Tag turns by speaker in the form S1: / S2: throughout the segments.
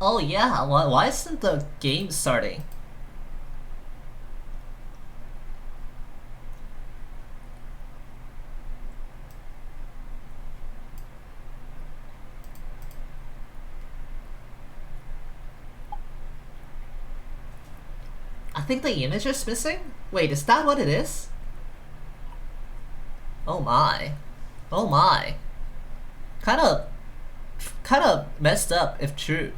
S1: Oh yeah, why, why isn't the game starting? I think the image is missing? Wait, is that what it is? Oh my. Oh my. Kinda. kinda messed up if true.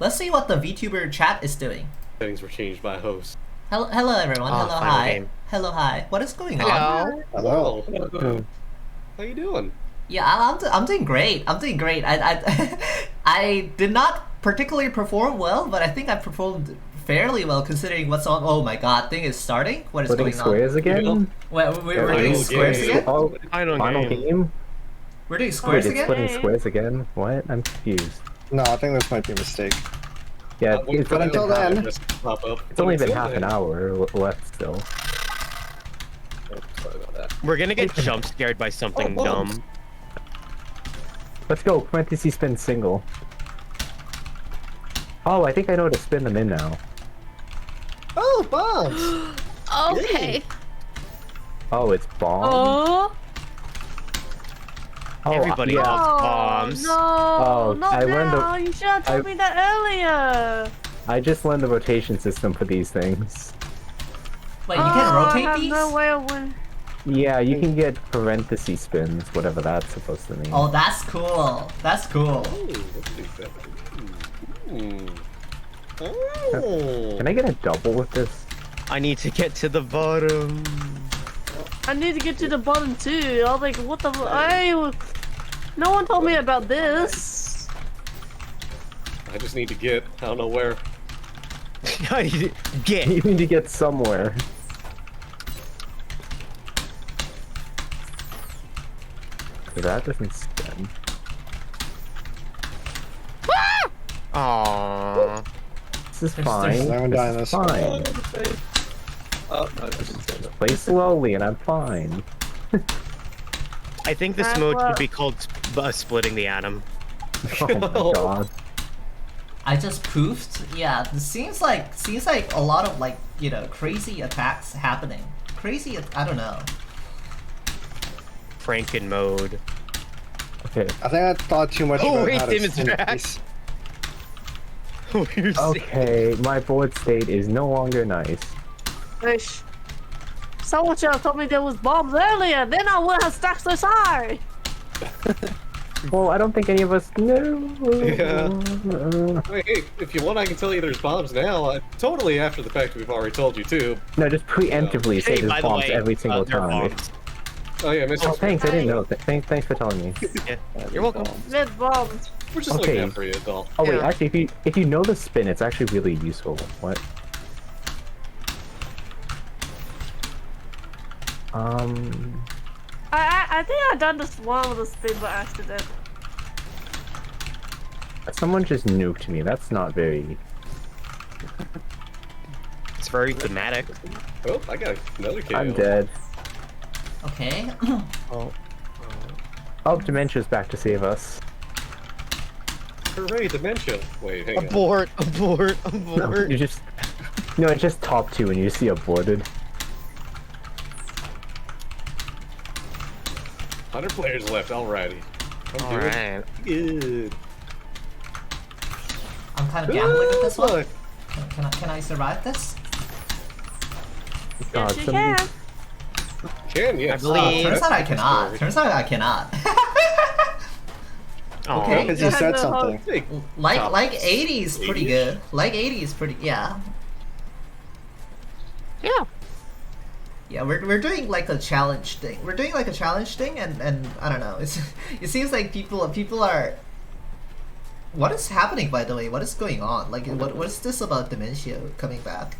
S1: Let's see what the VTuber chat is doing.
S2: Settings were changed by host.
S1: Hello, hello everyone.
S3: Ah,
S1: hello,
S3: final
S1: hi.
S3: game.
S1: Hello, hi. What is going on?
S3: Hello.
S2: Hello. Oh, How you doing?
S1: Yeah, I- I'm, do- I'm doing great. I'm doing great. I, I, I did not particularly perform well, but I think I performed fairly well considering what's on. Oh my god, thing is starting? What is
S4: Putting
S1: going
S4: squares again?
S1: on? Wait, we- we're
S4: Final
S1: doing
S4: game.
S1: squares again?
S4: Oh,
S3: Final
S4: final
S3: game.
S4: game?
S1: We're doing
S4: Wait,
S1: squares
S4: it's
S1: again?
S4: putting squares again? What? I'm confused.
S3: No, I think this might be a mistake.
S4: Yeah,
S2: Uh, we-
S4: it's,
S2: but
S4: only
S3: until
S4: been half,
S3: then-
S2: Just pop up.
S4: it's only been half an hour l- left still.
S2: Oh, sorry about that.
S3: We're gonna get jump scared by something
S2: Oh, whoa.
S3: dumb.
S4: Let's go, parentheses spin single. Oh, I think I know how to spin them in now.
S3: Oh, bombs!
S5: Okay.
S4: Oh, it's bomb.
S5: Oh.
S4: Oh,
S3: Everybody
S4: yeah.
S3: loves bombs.
S5: No.
S4: Oh,
S5: not
S4: I learned the-
S5: now. You should have told
S4: I-
S5: me that earlier.
S4: I just learned the rotation system for these things.
S1: Wait, you can
S5: oh, I
S1: rotate
S5: have
S1: these?
S5: no way of win-
S4: Yeah, you can get parentheses spins, whatever that's supposed to mean.
S1: Oh, that's cool. That's cool.
S2: Ooh, let's do that. Ooh. Ooh. Oh.
S4: Can I get a double with this?
S3: I need to get to the bottom.
S5: I need to get to the bottom too. I was like, what the? I. No one told me about this.
S2: I just need to get. I don't know where.
S4: You
S3: get.
S4: need to get somewhere. That doesn't spin.
S3: Aww.
S4: This is
S1: There's-
S4: fine.
S1: there's
S4: This
S3: no
S4: is
S3: dinosaur.
S4: fine.
S2: Oh, no, I Uh, just-
S4: Play slowly and I'm fine.
S3: I think this
S5: That's
S3: mode should
S5: what-
S3: be called sp- uh, splitting the atom.
S4: Oh my god.
S1: I just poofed. Yeah, this seems like seems like a lot of like you know crazy attacks happening. Crazy, at- I don't know.
S3: Franken mode.
S4: Okay.
S6: I think I thought too much
S3: Oh,
S6: about
S3: wait,
S6: how to
S3: Tim, it's
S6: spin
S3: back.
S6: these.
S3: We're
S4: Okay, my board state is no longer nice.
S5: Wish. Someone should have told me there was bombs earlier. Then I would have stacked so high.
S4: Well, I don't think any of us knew.
S2: Yeah. Hey, hey, if you want, I can tell you there's bombs now. I, totally after the fact, we've already told you too.
S4: No, just preemptively say
S3: Hey,
S4: there's
S3: by the
S4: bombs
S3: way,
S4: every
S3: uh,
S4: single
S3: they're
S4: time.
S3: bombs.
S2: Oh yeah, Mr.
S4: Oh, thanks. I didn't know. Th- thanks, thanks for telling me.
S3: Yeah. You're welcome.
S5: There's bombs.
S2: We're just
S4: Okay.
S2: looking out for you, that's all.
S4: Oh wait,
S5: Yeah.
S4: actually, if you if you know the spin, it's actually really useful. What? Um,
S5: I I, I think I done this one with a spin by accident.
S4: someone just nuked me. That's not very.
S3: It's very thematic.
S2: Oh, I got another KO.
S4: I'm dead.
S1: Okay.
S4: Oh, dementia's back to save us.
S2: Hooray, dementia. Wait,
S3: Oh,
S2: hang on.
S3: Abort, abort,
S4: No,
S3: abort.
S4: you just. No, it's just top two, and you see aborted.
S2: Hundred players left. Alrighty. I'm doing
S3: Alright.
S2: good.
S1: I'm kind of gambling with this one.
S2: Look,
S1: Can, can I can I survive this?
S4: God,
S5: yes, you
S4: somebody-
S5: can.
S2: Can yes.
S3: I believe-
S1: Uh, Turns out I cannot. Turns out I cannot.
S3: Aw.
S1: Okay.
S6: Because you said something.
S2: Hey,
S1: like
S2: Top
S1: like 80 is pretty
S2: 80?
S1: good. Like 80 is pretty yeah.
S5: Yeah.
S1: Yeah, we're, we're doing like a challenge thing. We're doing like a challenge thing, and, and I don't know. It's it seems like people people are. What is happening, by the way? What is going on? Like, what what is this about dementia coming back?